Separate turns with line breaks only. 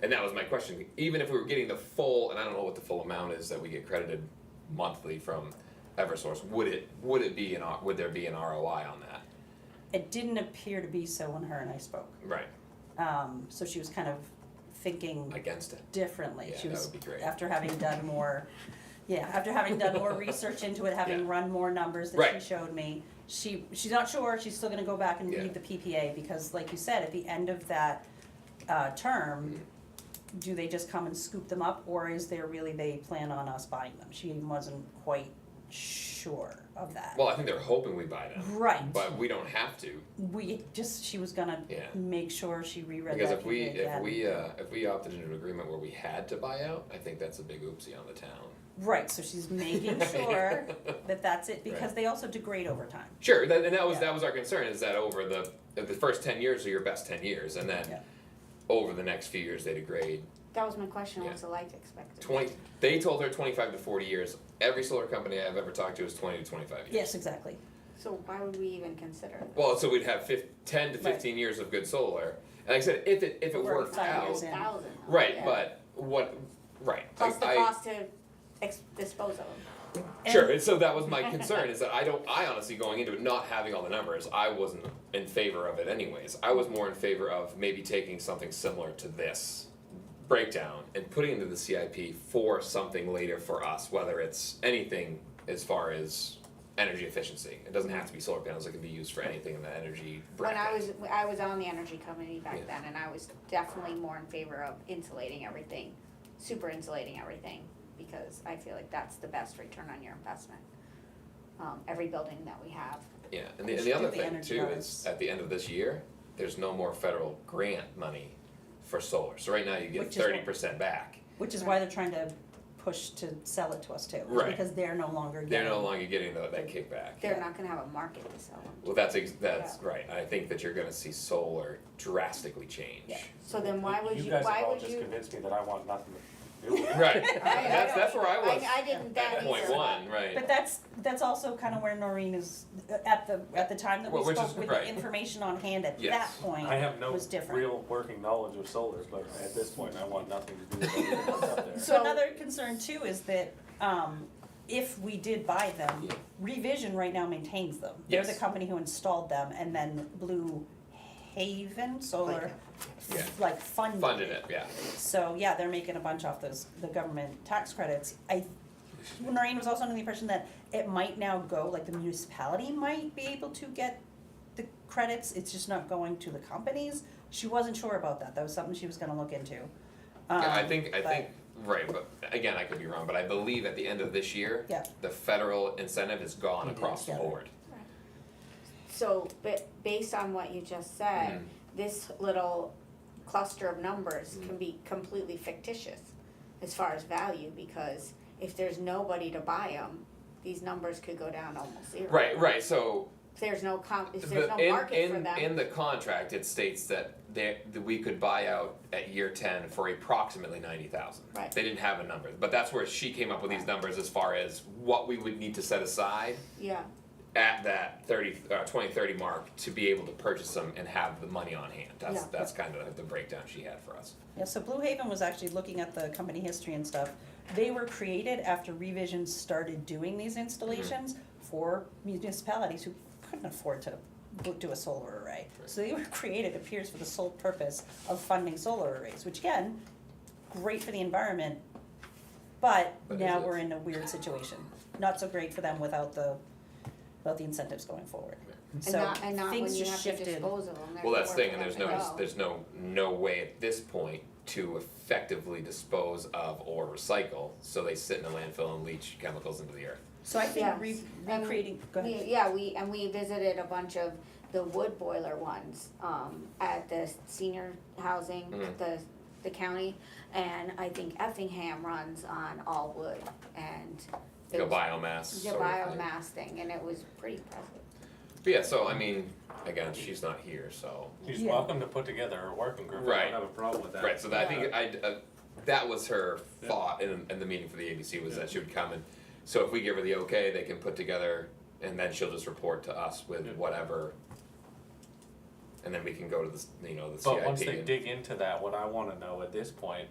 And that was my question. Even if we were getting the full, and I don't know what the full amount is that we get credited monthly from Eversource, would it would it be an R- would there be an ROI on that?
It didn't appear to be so when her and I spoke.
Right.
Um, so she was kind of thinking
Against it.
differently.
Yeah,
She
that
was,
would be great.
after having done more, yeah, after having done more research into it, having
Yeah.
run more numbers that
Right.
she showed me, she, she's not sure, she's still gonna go back and
Yeah.
read the PPA, because like you said, at the end of that, uh, term,
Mm-hmm.
do they just come and scoop them up, or is there really they plan on us buying them? She wasn't quite sure of that.
Well, I think they're hoping we buy them,
Right,
but we don't have to
we just, she was gonna
Yeah.
make sure she reread
because
that
if we
PPA
if
again.
we uh, if we opted into an agreement where we had to buy out, I think that's a big oopsie on the town.
Right, so she's making sure that that's it, because they also degrade over time.
Sure, that, and that was
Yeah.
that was our concern is that over the the first ten years are your best ten years, and then
Yeah.
over the next few years they degrade
That was my question,
Yeah.
was the life expectancy?
20 they told her 25 to 40 years every solar company i've ever talked to is 20 to 25 years
Yes, exactly.
So why would we even consider that?
well so we'd have fif- 10 to 15 years of good solar and like i said if it if it
We're
worked
five
out
years in.
Thousand.
right
yeah.
but what right like,
Plus the
I-
cost to ex- dispose of them.
sure and so that was my concern is that i don't i honestly going into it not having all the numbers i wasn't in favor of it anyways i was more in favor of maybe taking something similar to this breakdown and putting it into the cip for something later for us whether it's anything as far as energy efficiency it doesn't have to be solar panels it can be used for anything in the energy
When
bracket.
I was, I was on the energy company
Yeah.
back then, and I was definitely more in favor of insulating everything, super insulating everything, because I feel like that's the best return on your investment. Um, every building that we have,
yeah and
We
the, and the
should do
other
the
thing
energy
too
audits.
is at the end of this year there's no more federal grant money for solar so right now you get
Which is what-
30% back
Which is why they're trying to push to sell it to us too. is
Right.
Because they're no longer getting.
They're no longer getting tho- that kickback.
they're not gonna have a market to sell them.
Well, that's, ex- that's right. I think that you're gonna see solar drastically change.
Yeah.
So then why would you,
guys
why
have all
would
just
you?
convinced me that I want nothing to do with it.
Right,
I
that's, that's where I
don't-
was,
I, I didn't that
at
either.
point one, right.
But that's, that's also kind of where Noreen is, at the, at the time that we
Well, which
spoke
is-
with the
right.
information on hand at that
Yes.
point.
I have no
Was different.
real working knowledge of solar, but at this point, I want nothing to do with everything that's up there.
So another concern too is that, um, if we did buy them,
Yeah.
Revision right now maintains them. They're the
Yes.
company who installed them and then Blue Haven Solar,
Yeah.
like funded
Funded it, yeah.
So yeah, they're making a bunch off those the government tax credits. I Noreen was also under the impression that it might now go like the municipality might be able to get the credits. It's just not going to the companies. She wasn't sure about that. That was something she was going to look into. Um,
Yeah, I think, I
but-
think, right, but again, I could be wrong, but I believe at the end of this year,
Yeah.
the federal incentive is gone across the
Yeah.
board.
So, but based on what you just
Hmm.
said, this little cluster of numbers can be completely fictitious as far as value, because if there's nobody to buy them, these numbers could go down almost zero.
Right, right, so
If there's no com, if there's
the,
no market for
in, in,
them,
in the contract, it states that they, that we could buy out at year ten for approximately ninety thousand.
Right.
They didn't have a number, but that's where she came up with these numbers as far as what we would need to set aside
yeah,
at that thirty, uh, twenty thirty mark to be able to purchase them and have the money on hand. That's,
Yeah.
that's kind of the breakdown she had for us.
Yeah, so Blue Haven was actually looking at the company history and stuff. They were created after Revision started doing these installations for municipalities who couldn't afford to go- do a solar array. So they were created, appears, for the sole purpose of funding solar arrays, which again, great for the environment, but
But
now
is it?
we're in a weird situation. Not so great for them without the, without the incentives going forward.
and
So
not, and not when
things
you
just
have to
shifted.
dispose of them, there's
Well, that's the thing,
nowhere for
and there's
them to
no,
go.
there's no, no way at this point to effectively dispose of or recycle, so they sit in a landfill and leach chemicals into the earth.
So I think
Yes.
re-
And
recreating, go
We-
ahead.
Yeah, we, and we visited a bunch of the wood boiler ones, um, at the senior housing,
Mhm.
the, the county. And I think Effingham runs on all wood and.
Like a
it was
biomass
The
sort of thing.
biomass thing, and it was pretty impressive.
But yeah, so I mean, again, she's not here, so
He's
Yeah.
welcome to put together a working group. I
Right.
don't have a problem with that.
right. So that, I think I uh, that was her thought in, in the meeting for the ABC was
Yeah.
that she would come and so if we give her the okay, they can put together and then she'll just report to us with
Yeah.
whatever. and then we can go to the, s- you know, the CIP.
But once they
and-
dig into that, what I wanna know at this point